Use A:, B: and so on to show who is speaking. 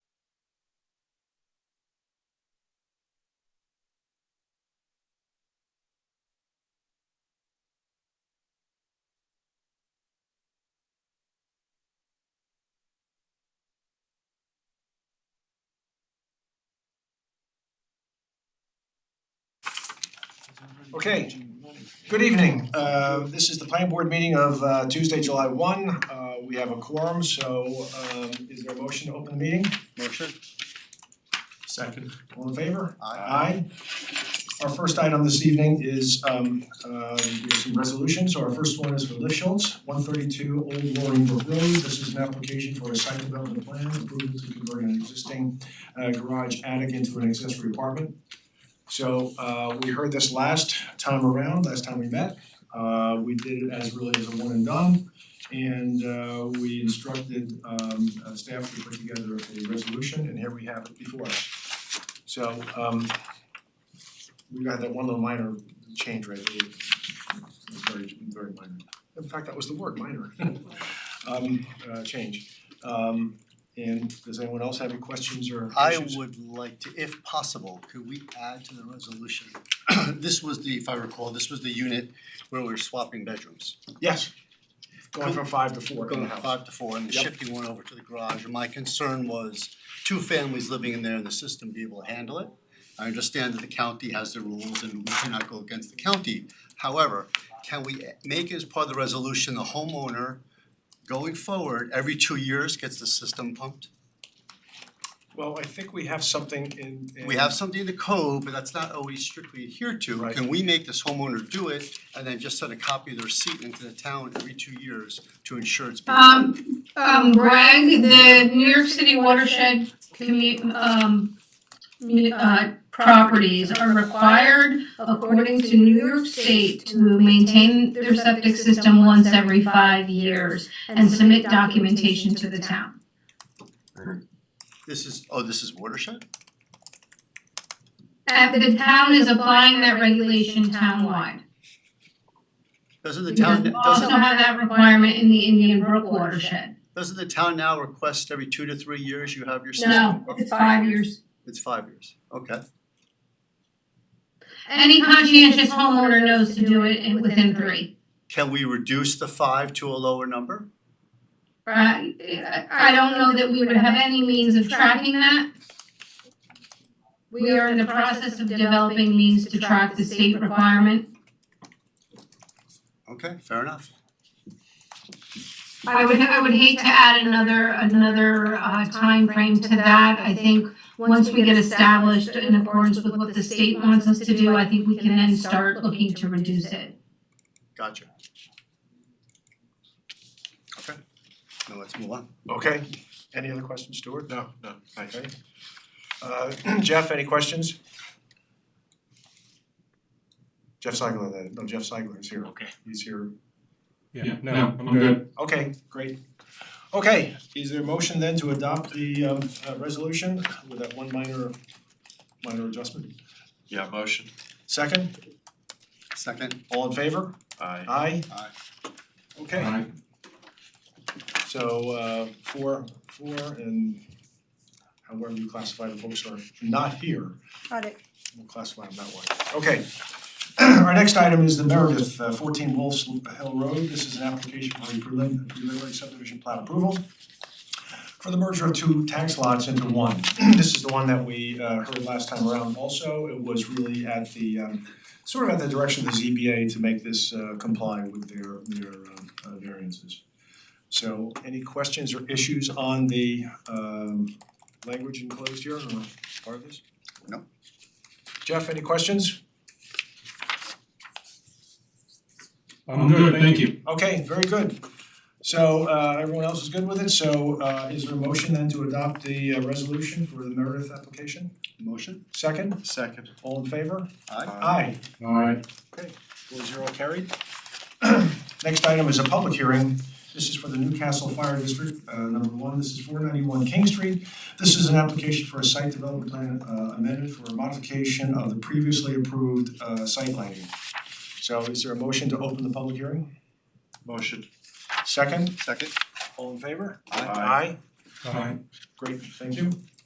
A: Okay, good evening. Uh this is the planning board meeting of uh Tuesday, July one. Uh we have a quorum, so um is there a motion to open the meeting?
B: Motion?
A: Second. All in favor?
B: Aye.
A: Aye. Our first item this evening is um uh we have some resolutions. So our first one is for Lifschultz, one thirty-two Old Loring Brook Road. This is an application for a site development plan approval to convert an existing uh garage attic into an accessory apartment. So uh we heard this last time around, last time we met. Uh we did it as really as a one and done. And uh we instructed um uh, staff to put together a resolution and here we have it before us. So um we got that one little minor change right there. It was Very, very minor. In fact, that was the word, minor. Um uh change. Um and does anyone else have any questions or
B: I
A: issues?
B: would like to, if possible, could we add to the resolution? This was the, if I recall, this was the unit where we were swapping bedrooms.
A: Yes. Going from five to four in the
B: Going
A: house.
B: five to four and
A: Yep.
B: shifting one over to the garage. And my concern was two families living in there and the system be able to handle it. I understand that the county has the rules and we cannot go against the county. However, can we make as part of the resolution, the homeowner going forward, every two years gets the system pumped?
A: Well, I think we have something in in
B: We have something in the code, but that's not always strictly adhered to.
A: Right.
B: Can we make this homeowner do it and then just send a copy of the receipt into the town every two years to ensure it's being?
C: Um, um, Bragg, the New York City watershed commu- um, muni- uh, properties are required according to New York State to maintain their septic system once every five years and submit documentation to the town.
B: This is, oh, this is watershed?
C: And Uh, the town is applying that regulation townwide.
B: Doesn't the
C: Because
B: town,
C: we
B: doesn't,
C: also have that requirement in the Indian Brook watershed.
B: doesn't the town now request every two to three years you have your system?
C: No,
B: Oh,
C: it's five years.
B: It's five years, okay.
C: Any conscientious homeowner knows to do it in within three.
B: Can we reduce the five to a lower number?
C: Right, I don't know that we would have any means of tracking that. We are in the process of developing means to track the state requirement.
B: Okay, fair enough.
C: I would, I would hate to add another, another uh frame to that. I think once we get established in accordance with what the state wants us to do, I think we can then start looking to reduce it.
B: Gotcha. Okay, now let's move on.
A: Okay, any other questions, Stuart? No, no. Okay. Uh Jeff, any questions? Jeff Seigler, that- no, Jeff Seigler is here.
D: Okay.
A: He's here.
D: Yeah, no, I'm good.
A: Okay, great. Okay, is there a motion then to adopt the um uh resolution with that one minor minor adjustment?
D: Yeah, motion.
A: Second,
B: Second,
A: all in favor?
D: Aye.
A: Aye?
B: Aye.
A: Okay. So uh four, four and however you classify the folks who are not here,
E: Got it.
A: we'll classify them that way. Okay. Our next item is the Meredith, uh, fourteen Wolf's Hill Road. This is an application for a prelim- preliminary subdivision plan approval for the merger of two tax lots into one. This is the one that we uh heard last time around also. It was really at the um sort of at the direction of the ZBA to make this uh comply with their their um uh, variances. So any questions or issues on the um language enclosed here or part of this?
B: No.
A: Jeff, any questions?
D: I'm good, thank you.
A: Okay, very good. So uh everyone else is good with it, so uh is there a motion then to adopt the uh, resolution for the Meredith application?
B: motion?
A: Second,
D: Second.
A: all in favor?
B: Aye.
A: Aye.
D: Alright.
A: Four zero carried. Next item is a public hearing. This is for the Newcastle Fire District, uh, number one. This is four ninety-one King Street. This is an application for a site development plan uh, amended for a modification of the previously approved, uh, site lighting. So is there a motion to open the public hearing?
D: Motion.
A: Second,
B: Second?
A: all in favor?
D: Aye.
A: Aye.
D: Aye.
A: Great, thank you.